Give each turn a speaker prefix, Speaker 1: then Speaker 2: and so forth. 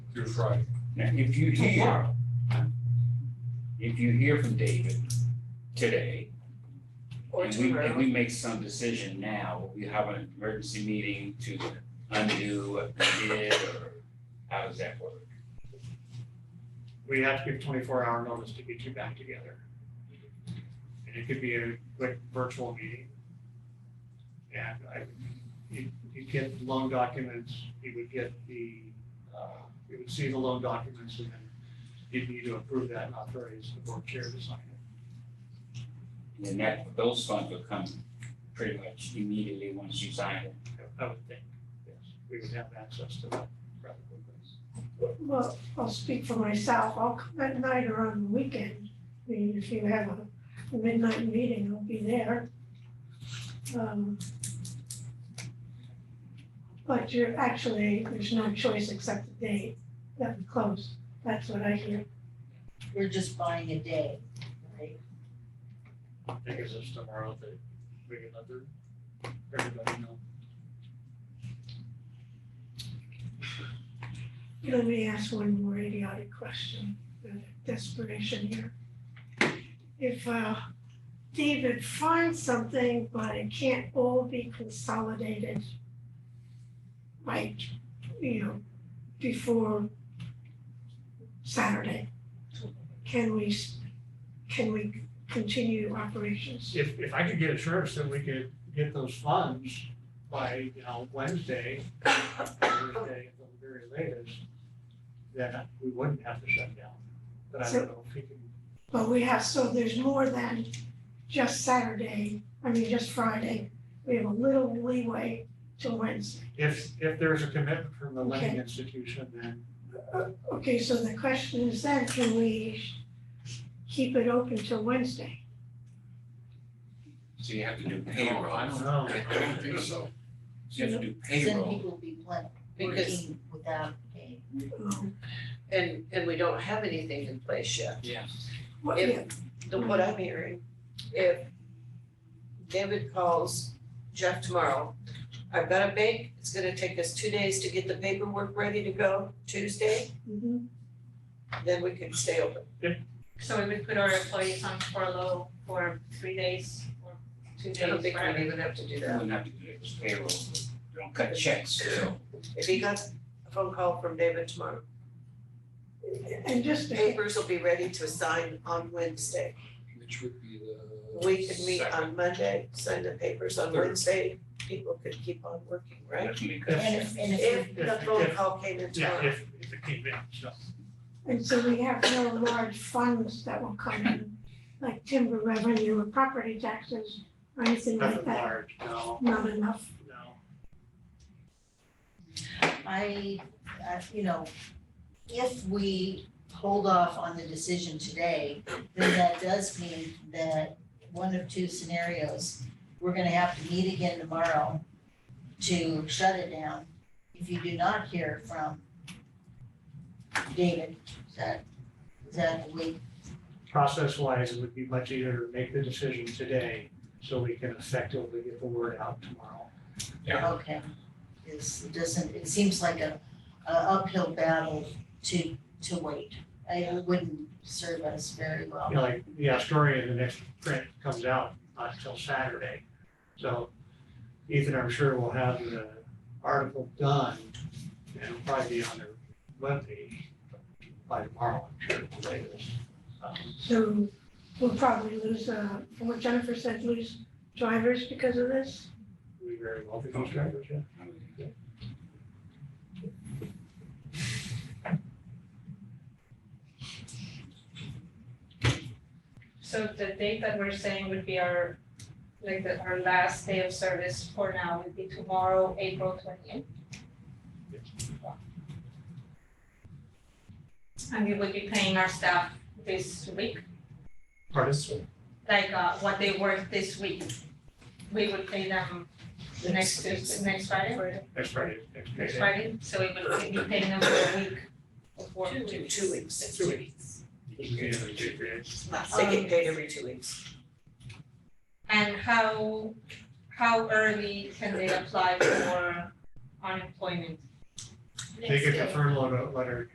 Speaker 1: through Friday.
Speaker 2: Now, if you hear, if you hear from David today,
Speaker 3: Oh,
Speaker 4: Or
Speaker 2: and we, and
Speaker 4: tomorrow.
Speaker 2: we make some decision now, we have an emergency meeting to undo what we did, or how does that work?
Speaker 4: We have to give twenty-four hour notice to get you back together. And it could be a quick virtual meeting. And I, you, you get the loan documents, you would get the, uh, you would see the loan documents and then you'd need to approve that and authorize the board chair to sign it.
Speaker 2: And then that, those funds will come pretty much immediately once you sign it.
Speaker 4: I would think, yes, we would have access to that rather quickly.
Speaker 5: Well, I'll speak for myself, I'll come at night or on the weekend. I mean, if you have a midnight meeting, I'll be there. Um, But you're actually, there's no choice except the date that we close, that's what I hear.
Speaker 6: We're just buying a day, right?
Speaker 4: I think it's just tomorrow that we can let the- everybody know.
Speaker 5: Let me ask one more idiotic question, uh, desperation here. If uh, David finds something, but it can't all be consolidated, like, you know, before Saturday, can we, s- can we continue operations?
Speaker 4: if, if I could get assurance that we could get those funds by, you know, Wednesday, Thursday, at the very latest, then we wouldn't have to shut down. But I don't know if he can,
Speaker 5: But we have, so there's more than just Saturday, I mean, just Friday. We have a little leeway till Wednesday.
Speaker 4: if, if there's a commitment from the lending institution, then
Speaker 5: Okay, so the question is then, can we keep it open till Wednesday?
Speaker 2: So you have to do
Speaker 1: I
Speaker 2: payroll,
Speaker 1: don't
Speaker 4: know.
Speaker 1: I don't think so.
Speaker 2: you have to do
Speaker 6: Cause then
Speaker 2: payroll.
Speaker 6: people will be plan-
Speaker 3: Because-
Speaker 6: working without pay.
Speaker 5: Um,
Speaker 3: And, and we don't have anything in place yet.
Speaker 2: Yeah.
Speaker 5: What,
Speaker 3: If-
Speaker 5: yeah,
Speaker 3: The, what I'm hearing, if David calls Jeff tomorrow, I've got a bank, it's gonna take us two days to get the paperwork ready to go Tuesday,
Speaker 5: mhm.
Speaker 3: then we can stay open.
Speaker 7: So we would put our employees on furlough for three days or two
Speaker 3: I don't
Speaker 7: days,
Speaker 3: think we
Speaker 7: whatever.
Speaker 3: even have to do
Speaker 2: You
Speaker 3: that.
Speaker 2: wouldn't have to do it, it's payroll, you don't cut checks, so.
Speaker 3: If he got a phone call from David tomorrow,
Speaker 5: And just to,
Speaker 3: papers will be ready to sign on Wednesday.
Speaker 1: Which would be the.
Speaker 3: We could meet
Speaker 1: second.
Speaker 3: on Monday, sign the papers on
Speaker 1: Third.
Speaker 3: Wednesday, people could keep on working, right?
Speaker 2: Definitely cut
Speaker 6: And
Speaker 2: checks.
Speaker 6: if, and if,
Speaker 3: If the phone call came in tomorrow.
Speaker 4: yeah, if, if it came in, so.
Speaker 5: and so we have no large funds that will come in, like timber revenue or property taxes or anything like
Speaker 4: Nothing
Speaker 5: that.
Speaker 4: large, no,
Speaker 5: Not enough.
Speaker 4: no.
Speaker 6: I, uh, you know, if we hold off on the decision today, then that does mean that one of two scenarios, we're gonna have to meet again tomorrow to shut it down. If you do not hear from David, is that, is that a week?
Speaker 4: Process wise, it would be much easier to make the decision today so we can effectively get the word out tomorrow.
Speaker 2: Yeah.
Speaker 6: Okay. It's, it doesn't, it seems like a, a uphill battle to, to wait. I- It wouldn't serve us very well.
Speaker 4: you know, like the Astoria, the next print comes out not until Saturday. So Ethan, I'm sure will have the article done and it'll probably be on their webpage by tomorrow, I'm sure, at the latest. Um,
Speaker 5: So we'll probably lose, uh, from what Jennifer said, lose drivers because of this.
Speaker 4: We very well become strangers, yeah.
Speaker 7: So the date that we're saying would be our, like the, our last day of service for now would be tomorrow, April twentieth. And we would be paying our staff this week,
Speaker 4: Pardon?
Speaker 7: like, uh, what they work this week. We would pay them the next, Tuesday- next Friday,
Speaker 4: Next Friday, next Friday.
Speaker 7: next Friday, so we would be paying them for a week of work.
Speaker 3: Two, two weeks.
Speaker 4: Two
Speaker 3: weeks.
Speaker 4: It's
Speaker 3: They get paid every two weeks.
Speaker 7: And how, how early can they apply for unemployment?
Speaker 4: They get the furlough letter